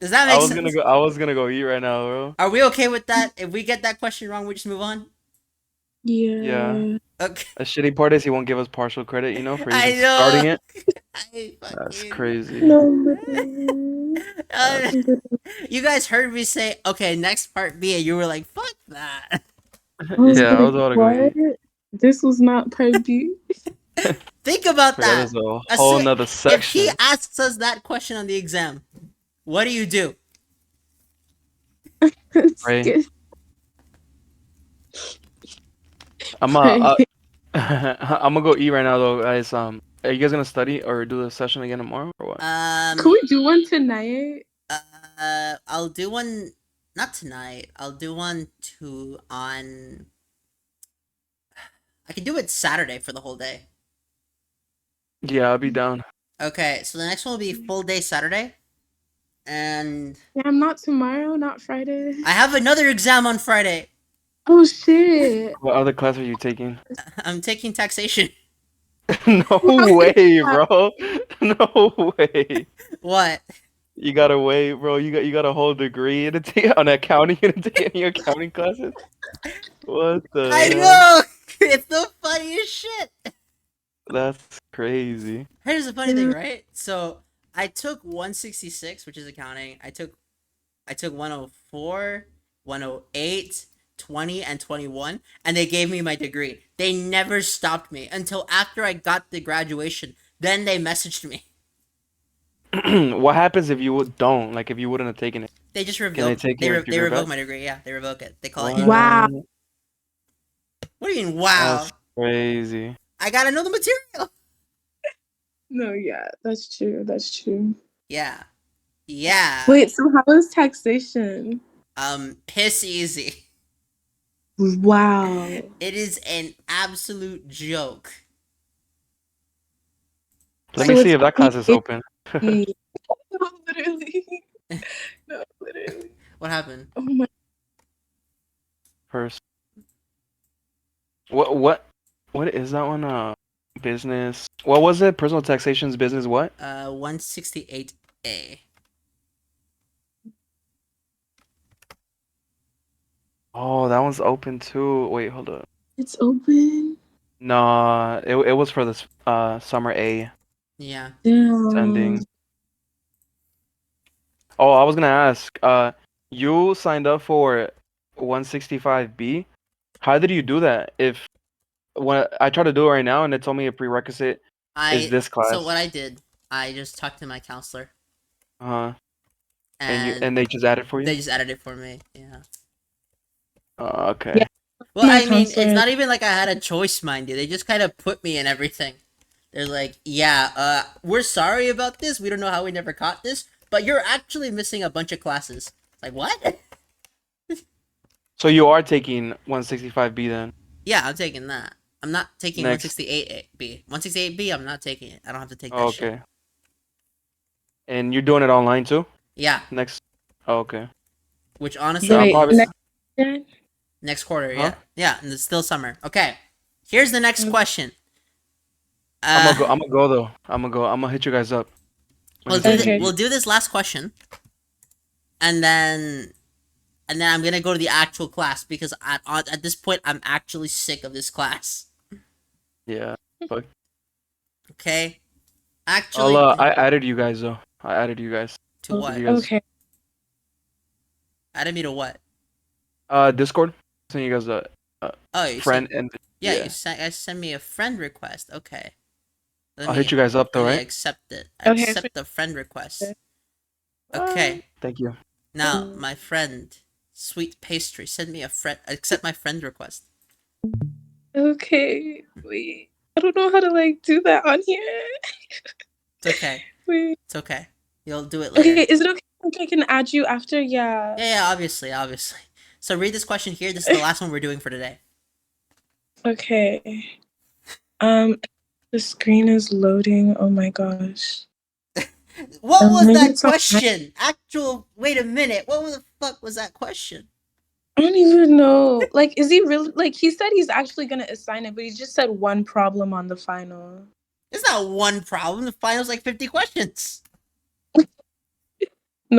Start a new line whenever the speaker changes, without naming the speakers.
Does that make
I was
sense?
gonna go. I was gonna go eat right now, bro.
Are we okay with that? If we get that question wrong, we just move on.
Yeah.
Yeah.
Okay.
The shitty part is he won't give us partial credit, you know, for
I
even
know.
starting it.
I
That's
fucking-
crazy.
No.
Uh, you guys heard me say, "Okay, next part B," and you were like, "Fuck that."
Yeah, I was about to go eat.
This was not part B.
Think about
That
that.
is a
I
whole
see-
nother
If he
section.
asks us that question on the exam, what do you do?
Right.
Skip.
I'm uh, uh, I'm gonna go eat right now though, guys. Um, are you guys gonna study or do the session again tomorrow or what?
Um,
Could we do one tonight?
uh, I'll do one. Not tonight. I'll do one to on. I can do it Saturday for the whole day.
yeah, I'll be down.
Okay, so the next one will be full day Saturday, and
Yeah, not tomorrow, not Friday.
I have another exam on Friday.
Oh shit.
What other class are you taking?
I'm taking taxation.
no way, bro. No way.
What?
You gotta wait, bro. You got you got a whole degree in a on accounting in your accounting classes. What the?
I
hell?
know. It's the funniest shit.
That's crazy.
Here's the funny thing, right? So I took 166, which is accounting. I took I took 104, 108, 20, and 21, and they gave me my degree. They never stopped me until after I got the graduation. Then they messaged me.
what happens if you would- don't like if you wouldn't have taken it?
They just revoked. They,
take
they,
your-
re-
your
they revoke
revoke?
my degree. Yeah, they revoke it. They call it.
Wow.
in. What do you mean? Wow!
That's crazy.
I gotta know the material.
No, yeah, that's true. That's true.
Yeah, yeah.
Wait, so how is taxation?
Um, piss easy.
Wow.
It is an absolute joke.
Let
So
me see
it's-
if that class is
it-
open.
Mm. no, literally. No, literally.
What happened?
Oh my.
first. What what what is that one? Uh, business. What was it? Personal taxation's business. What?
Uh, 168A.
Oh, that one's open too. Wait, hold up.
It's open.
Nah, it it was for this uh summer A
Yeah.
Damn.
ending. Um, Oh, I was gonna ask. Uh, you signed up for 165B. How did you do that? If when I tried to do it right now and it told me a prerequisite
I
is this class,
so what I did, I just talked to my counselor
uh, and
and,
you and they just added for you.
they just added it for me. Yeah.
Oh, okay.
Yeah.
Well,
My
I mean, it's
counselor-
not even like I had a choice, mind you. They just kind of put me in everything. They're like, "Yeah, uh, we're sorry about this. We don't know how we never caught this, but you're actually missing a bunch of classes." It's like, "What?"
So you are taking 165B then.
Yeah, I'm taking that. I'm not taking
Next.
168B. 168B, I'm not taking it. I don't have to take that
Oh,
shit.
okay. And you're doing it online too?
Yeah,
Next. Oh, okay.
which honestly,
So I'm
Wait,
probably-
next question?
next quarter,
Huh?
yeah. Yeah, and it's still summer. Okay, here's the next
Mm.
question.
I'm
Uh,
gonna go. I'm gonna go though. I'm gonna go. I'm gonna hit you guys up.
we'll, do
Okay.
thi- we'll do this last question, and then, and then I'm gonna go to the actual class because at at at this point I'm actually sick of this class.
Yeah.
Okay,
I'll,
actually,
uh, I added you guys though. I added you guys.
to what?
you guys-
Okay.
Added me to what?
Uh, Discord. Send you guys a
Oh, you
friend
Sent,
and
yeah,
yeah.
you sent. I sent me a friend request. Okay. Let
I'll
me-
hit you guys up though,
let me
right?
accept it. I
Okay,
accept the friend request.
Okay.
Okay.
Thank you.
Now,
Mm.
my friend, sweet pastry, send me a friend. Accept my friend request.
Okay. Wait. I don't know how to like do that on here.
It's okay.
Wait.
It's okay. You'll do it later.
Okay, is it okay if I can add you after? Yeah.
Yeah, yeah, obviously, obviously. So read this question here. This is the last one we're doing for today.
Okay. Um the screen is loading. Oh my gosh.
What
Um,
was
maybe
that
it's not-
question? Actual. Wait a minute. What the fuck was that question?
I don't even know. Like, is he really like he said he's actually gonna assign it, but he just said one problem on the final.
It's not one problem. The final's like fifty questions.